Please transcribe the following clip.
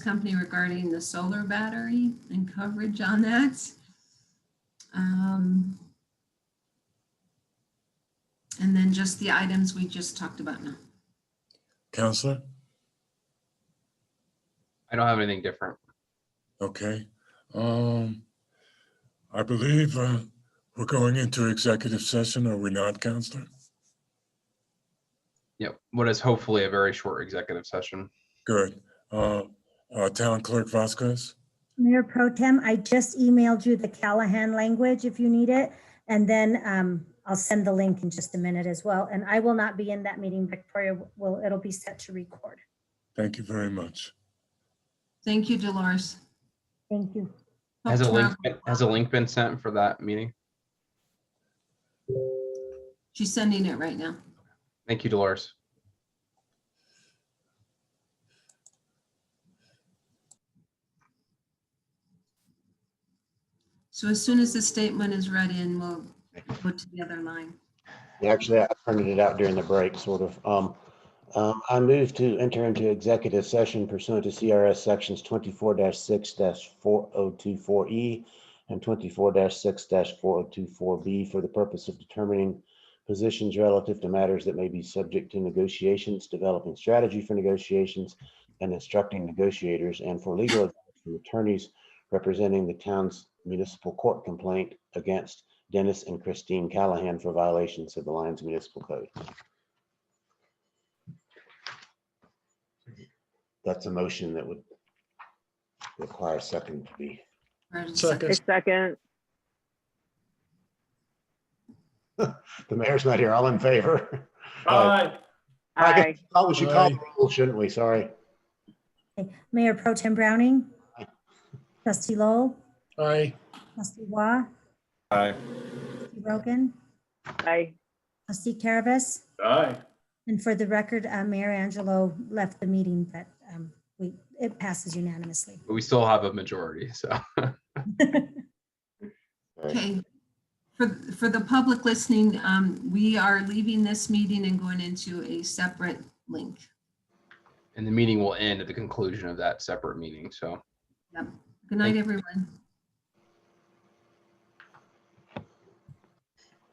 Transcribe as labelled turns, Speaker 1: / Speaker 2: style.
Speaker 1: company regarding the solar battery and coverage on that. Um, And then just the items we just talked about now.
Speaker 2: Counselor?
Speaker 3: I don't have anything different.
Speaker 2: Okay. Um, I believe uh, we're going into executive session, are we not, Counselor?
Speaker 3: Yep. What is hopefully a very short executive session.
Speaker 2: Good. Uh, uh, Town Clerk Vasquez?
Speaker 4: Mayor Pro Tem, I just emailed you the Callahan language if you need it. And then um, I'll send the link in just a minute as well. And I will not be in that meeting. Victoria will, it'll be set to record.
Speaker 2: Thank you very much.
Speaker 1: Thank you, Dolores.
Speaker 4: Thank you.
Speaker 1: Hope
Speaker 3: Has a link,
Speaker 1: tomorrow-
Speaker 3: been- has a link been sent for that meeting?
Speaker 1: She's sending it right now.
Speaker 3: Thank you, Dolores.
Speaker 1: So as soon as the statement is read in, we'll put together line.
Speaker 5: Actually, I printed it out during the break, sort of. Um, um, I move to enter into executive session pursuant to CRS sections twenty-four six four oh two four E and twenty-four six four oh two four B for the purpose of determining positions relative to matters that may be subject to negotiations, developing strategy for negotiations, and instructing negotiators and for legal advice from attorneys representing the town's municipal court complaint against Dennis and Christine Callahan for violations of the Lyons Municipal Code. That's a motion that would require second to be.
Speaker 2: Second.
Speaker 6: I second.
Speaker 5: The mayor's not here. All in favor?
Speaker 7: Aye.
Speaker 5: I guess-
Speaker 6: Aye.
Speaker 5: Oh, we should call the roll, shouldn't we? Sorry.
Speaker 4: Mayor Pro Tem Browning? Trustee Lowell?
Speaker 7: Aye.
Speaker 4: Trustee Waugh?
Speaker 7: Aye.
Speaker 4: Trustee Rogan?
Speaker 6: Aye.
Speaker 4: Trustee Caravas?
Speaker 7: Aye.
Speaker 4: And for the record, uh, Mayor Angelo left the meeting, but um, we, it passes unanimously.
Speaker 3: But we still have a majority, so.
Speaker 1: Okay. For, for the public listening, um, we are leaving this meeting and going into a separate link.
Speaker 3: And the meeting will end at the conclusion of that separate meeting, so.
Speaker 1: Good night, everyone.